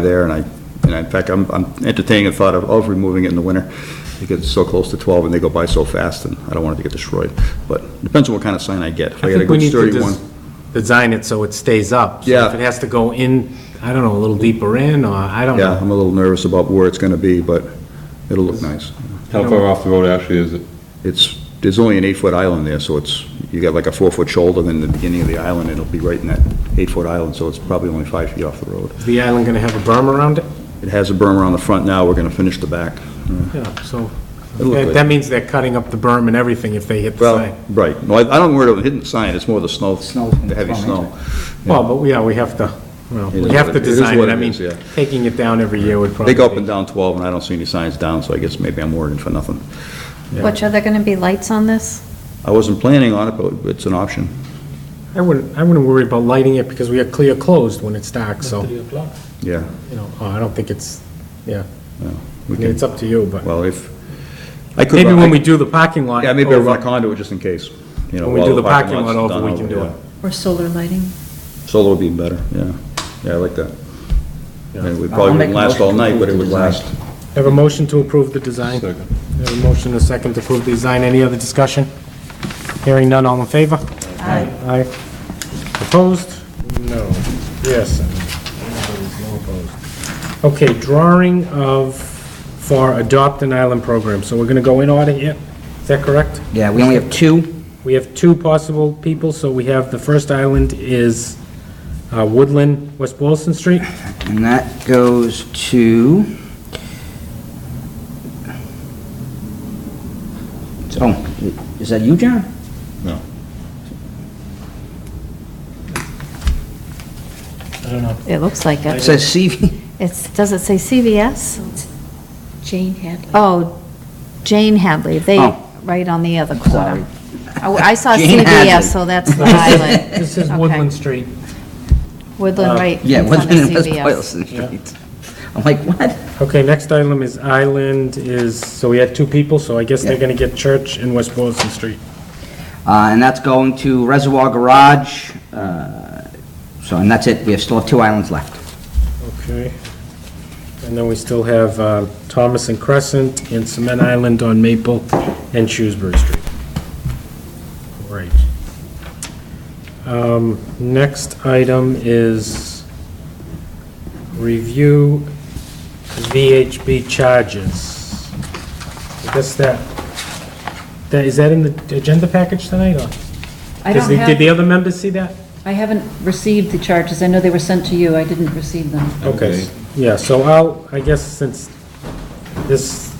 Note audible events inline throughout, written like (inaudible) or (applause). there, and I, and in fact, I'm I'm entertaining the thought of, of removing it in the winter. It gets so close to 12, and they go by so fast, and I don't want it to get destroyed. But depends on what kind of sign I get. If I I get a think we good need to sturdy des- one, design it so it stays up. So Yeah. If it has to go in, I don't know, a little deeper in, or I don't yeah, know. I'm a little nervous about where it's going to be, but it'll look nice. How far off the road actually is it? It's, there's only an eight-foot island there, so it's, you got like a four-foot shoulder, then the beginning of the island, it'll be right in that eight-foot island, so it's probably only five feet off the road. Is the island gonna have a berm around it? It has a berm around the front now, we're going to finish the back. Yeah, so, It'll look that good. that means they're cutting up the berm and everything if they hit the Well, sign. right. No, I I don't worry about hitting the sign, it's more the snow, Snow. the heavy snow. yeah. Well, but, yeah, we have to, well, It we is have what to it- it is design what it. I it mean, is, yeah. taking it down every year would probably. They go up and down 12, and I don't see any signs down, so I guess maybe I'm worrying for nothing. Which, are there going to be lights on this? I wasn't planning on it, but it's an option. I wouldn't, I wouldn't worry about lighting it because we are clear closed when it's dark, so, you Yeah, know, oh, I don't think it's, yeah, I we mean, can, it's up to you, but. well, if, I could... Maybe when we do the parking lot. oh, Yeah, maybe I'll run a over- conduit just in case, you know. When we while do the parking lot's lot over, done we can do yeah. it. Or solar lighting? Solar would be better, yeah. Yeah, I like that. And we I'll probably make wouldn't a last motion all to night, approve but it the would design. last. Have a motion to approve the design? Second. Have a motion and a second to approve the design. Any other discussion? Hearing none, all in favor? Aye. Aye. Opposed? No. Yes. No opposed. Okay, drawing of, for Adopt an Island program. So we're going to go in order here. Is that correct? Yeah, we only have two. We have two possible people, so we have, the first island is uh, Woodland, West Boylston Street. And that goes to... Oh, is that you, John? No. I don't know. It looks like It it. says CV. It's, does it say CVS? Jane Hadley. Oh, Jane Hadley, they, Oh. right on the other Sorry. corner. Oh, I saw Jane Hadley. CVS, so (laughs) that's the island. This is Okay. Woodland Street. Woodland, (laughs) right. Yeah, in front Woodland and of West CVS. Boylston Street. (laughs) I'm like, what? Okay, next item is Island is, so we had two people, so I guess they're Yeah. gonna get Church and West Boylston Street. Uh, And that's going to Reservoir Garage. uh, So, and that's it. We have still have two islands left. Okay. And then we still have uh, Thomas and Crescent and Cement Island on Maple and Shrewsbury Street. Great. Um, Next item is review VHB charges. I guess that, that, is that in the agenda package tonight, or? I Does don't the- Did the have, other members see that? I haven't received the charges. I know they were sent to you. I didn't receive them. Okay, yeah, so I'll, I guess since this,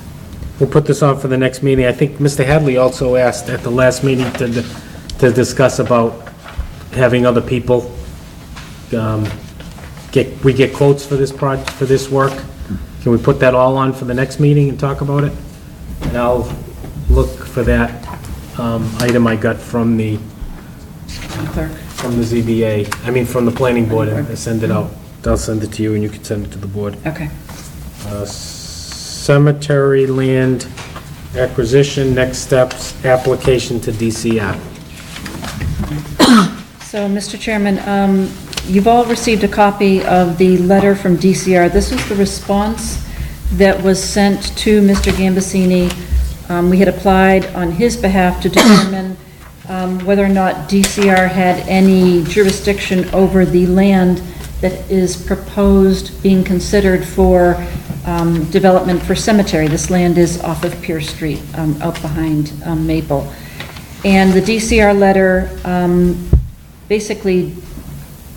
we'll put this on for the next meeting. I think Mr. Hadley also asked at the last meeting to, to discuss about having other people, um, get, we get quotes for this proj, for this work. Can we put that all on for the next meeting and talk about it? And I'll look for that, um, item I got from the, Clerk. from the ZBA, I mean, from the planning board and send it out. I'll send it to you and you can send it to the board. Okay. Uh, Cemetery land acquisition, next steps, application to DCR. So, Mr. Chairman, um, you've all received a copy of the letter from DCR. This was the response that was sent to Mr. Gambasini. Um, We had applied on his behalf to determine um, whether or not DCR had any jurisdiction over the land that is proposed being considered for um, development for cemetery. This land is off of Pierce Street, um, out behind um, Maple. And the DCR letter um, basically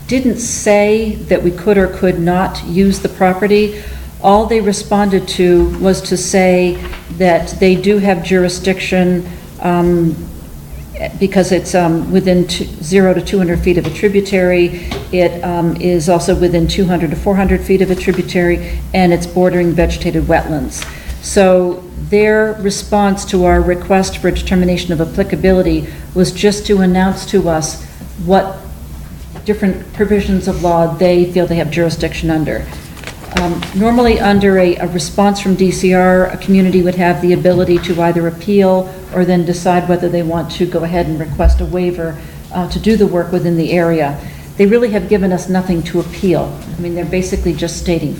didn't say that we could or could not use the property. All they responded to was to say that they do have jurisdiction um, because it's um, within two- zero to 200 feet of a tributary. It um, is also within 200 to 400 feet of a tributary, and it's bordering vegetated wetlands. So their response to our request for determination of applicability was just to announce to us what different provisions of law they feel they have jurisdiction under. Um, Normally, under a, a response from DCR, a community would have the ability to either appeal or then decide whether they want to go ahead and request a waiver uh, to do the work within the area. They really have given us nothing to appeal. I mean, they're basically just stating